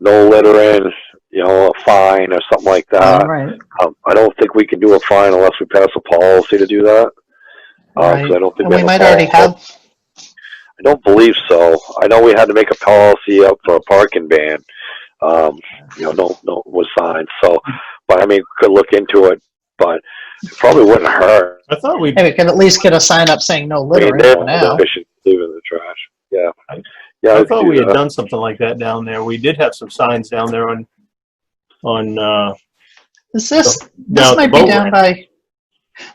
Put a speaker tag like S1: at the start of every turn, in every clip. S1: no littering, you know, a fine or something like
S2: All
S1: that.
S2: right,
S1: Um, I don't think we can do a fine unless we pass a policy to do that. Uh, 'cause I
S2: right.
S1: don't think
S2: And
S1: we
S2: we
S1: have a
S2: might already
S1: policy.
S2: have,
S1: I don't believe so. I know we had to make a policy up for a parking ban. Um, you know, no, no, was signed. So, but I mean, could look into it, but it probably wouldn't hurt.
S3: I thought we,
S2: hey, we could at least get a sign up saying no
S1: I mean,
S2: littering
S1: they're
S2: for now.
S1: sufficient leaving the trash. Yeah.
S3: I-
S1: Yeah.
S3: I
S1: let's
S3: thought
S1: do
S3: we had
S2: uh,
S1: that.
S3: done something like that down there. We did have some signs down there on, on, uh,
S2: Is this,
S3: down
S2: this
S3: at the
S2: might be
S3: boat
S2: down
S3: ramp.
S2: by,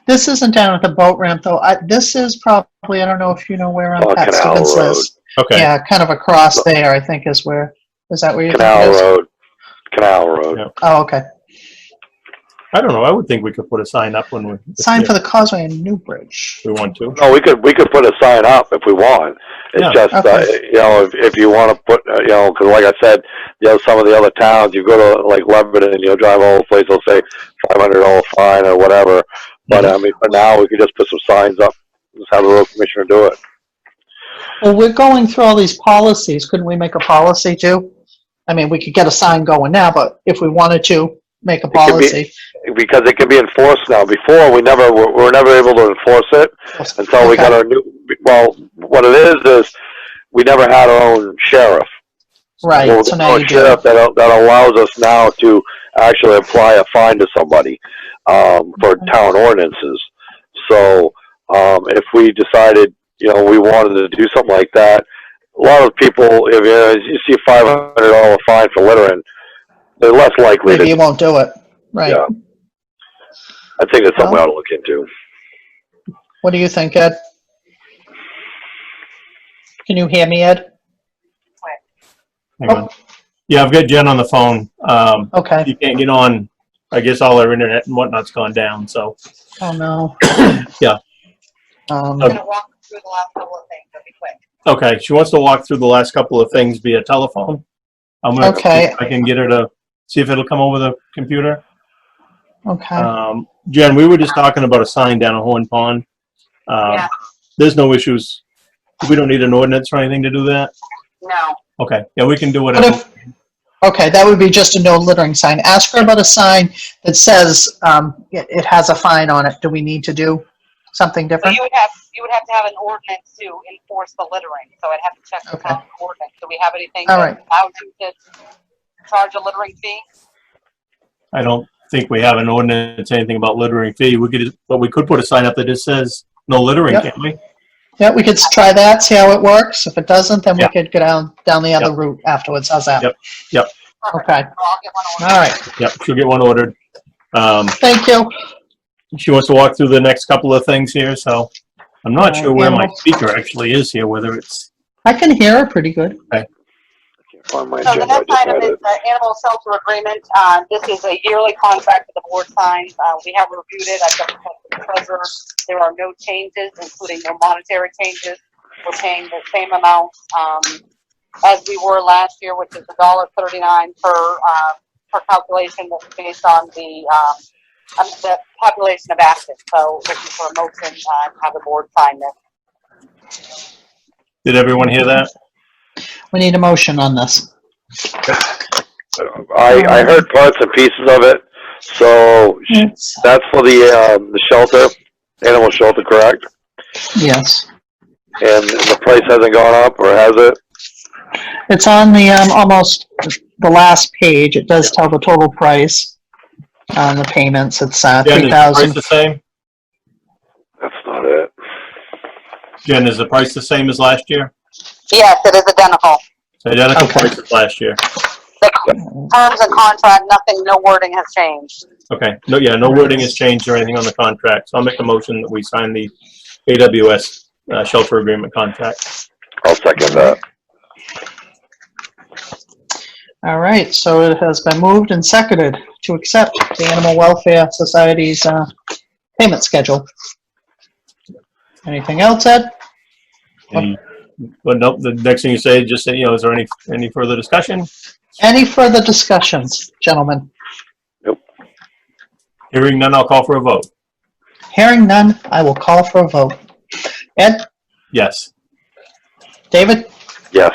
S2: this isn't down at the boat ramp though. I, this is probably, I don't know if you know where on
S1: Oh,
S2: Pat
S1: Canal
S2: Stevens
S1: Road.
S2: is.
S3: Okay,
S2: Yeah, kind of across there, I think is where, is that where you're
S1: Canal
S2: thinking it is?
S1: Road. Canal Road.
S3: Yeah.
S2: Oh, okay.
S3: I don't know. I would think we could put a sign up when we.
S2: Sign for Oh. the causeway in Newbridge.
S3: If we want to.
S1: No, we could we could put a sign up if we want. It's
S3: Yeah.
S1: just uh,
S2: Okay.
S1: you know if, if you want to put uh, you know because like I said, you know some of the other towns you go to like Lebanon and you'll drive all the place they'll say five hundred dollar fine or whatever. But I mean for now we could just put some signs up. Just have the road commissioner do it.
S2: Well, we're going through all these policies. Couldn't we make a policy too? I mean, we could get a sign going now, but if we wanted to, make a
S1: could be-
S2: policy.
S1: because it can be enforced now. Before we never were, we were never able to enforce it until we got our new. Well, what it is is we never had our own sheriff.
S2: Right,
S1: Well,
S2: so now
S1: our
S2: you do.
S1: sheriff that that allows us now to actually apply a fine to somebody um, for
S2: Mm-hmm.
S1: town ordinances. So um, if we decided, you know, we wanted to do something like that, a lot of people, if you, you see a five hundred dollar fine for littering, they're less likely
S2: Maybe you
S1: to.
S2: won't do it. Right.
S1: Yeah. I think it's something I ought to look into.
S2: What do you think, Ed? Can you hear me, Ed?
S3: Hang on. Yeah, I've got Jen on the phone. Um,
S2: Okay.
S3: you can't get on. I guess all our internet and whatnot's gone down, so.
S2: Oh, no.
S3: Yeah. Uh,
S2: Um,
S4: I'm gonna walk through the last couple of things, it'll be quick.
S3: Okay, she wants to walk through the last couple of things via telephone. I'm gonna, see
S2: Okay.
S3: if I can get her to, see if it'll come over the computer.
S2: okay.
S3: Um, Jen, we were just talking about a sign down at Horn Pond. Um,
S4: Yeah.
S3: There's no issues. We don't need an ordinance or anything to do that.
S4: No,
S3: Okay, yeah, we can do
S2: What
S3: whatever.
S2: if, okay, that would be just a no littering sign. Ask her about a sign that says, um, it, it has a fine on it. Do we need to do something
S4: so
S2: different?
S4: you would have, you would have to have an ordinance to enforce the littering, so I'd have to check the
S2: Okay.
S4: town ordinance. Do we have anything
S2: All
S4: that allows you to charge a littering fee?
S3: I don't think we have an ordinance, anything about littering fee. We could, but we could put a sign up that just says no littering,
S2: Yep.
S3: can't we?
S2: Yeah, we could s- try that, see how it works. If it doesn't, then we
S3: Yeah.
S2: could go down, down the other route afterwards. How's that?
S3: Yep, yep.
S4: Perfect.
S2: Okay.
S4: So I'll get one
S2: All
S4: ordered.
S2: right.
S3: Yep, she'll get one ordered. Um,
S2: Thank you.
S3: she wants to walk through the next couple of things here, so I'm not
S2: Uh,
S3: sure where my speaker actually is here, whether it's,
S2: I can hear her pretty good.
S1: Can't find my
S4: So the
S1: agenda, I
S4: next
S1: just
S4: item
S1: had
S4: is
S1: it.
S4: the animal shelter agreement. Uh, This is a yearly contract that the board signs. Uh, We have reviewed it. I've got the check from the treasurer. There are no changes, including no monetary changes. We're paying the same amount um, as we were last year, which is a dollar thirty-nine per, uh, per calculation that's based on the, um, um, the population of active. So looking for a motion, uh, to have the board sign this.
S3: did everyone hear that?
S2: We need a motion on this.
S1: I, I heard parts and pieces of it, so sh- that's for the, um, the shelter, animal shelter, correct?
S2: Yes.
S1: And the price hasn't gone up, or has it?
S2: It's on the, um, almost the last page. It does tell the total price on the payments. It's, uh,
S3: Jen,
S2: three
S3: is the price
S2: thousand.
S3: the same?
S1: That's not it.
S3: Jen, is the price the same as last year?
S4: Yes, it is identical.
S3: It's Identical
S2: Okay.
S3: price as last year.
S4: The terms and contract, nothing, no wording has changed.
S3: Okay, no, yeah, no wording has changed or anything on the contract, so I'll make a motion that we sign the AWS uh, shelter agreement contract.
S1: I'll second that.
S2: All right, so it has been moved and seconded to accept the Animal Welfare Society's, uh, payment schedule. Anything else, Ed?
S3: And- But nope, the next thing you say, just say, you know, is there any, any further discussion?
S2: Any further discussions, gentlemen?
S3: Hearing none, I'll call for a vote.
S2: Hearing none, I will call for a vote. Ed,
S3: Yes.
S2: David,
S1: Yes.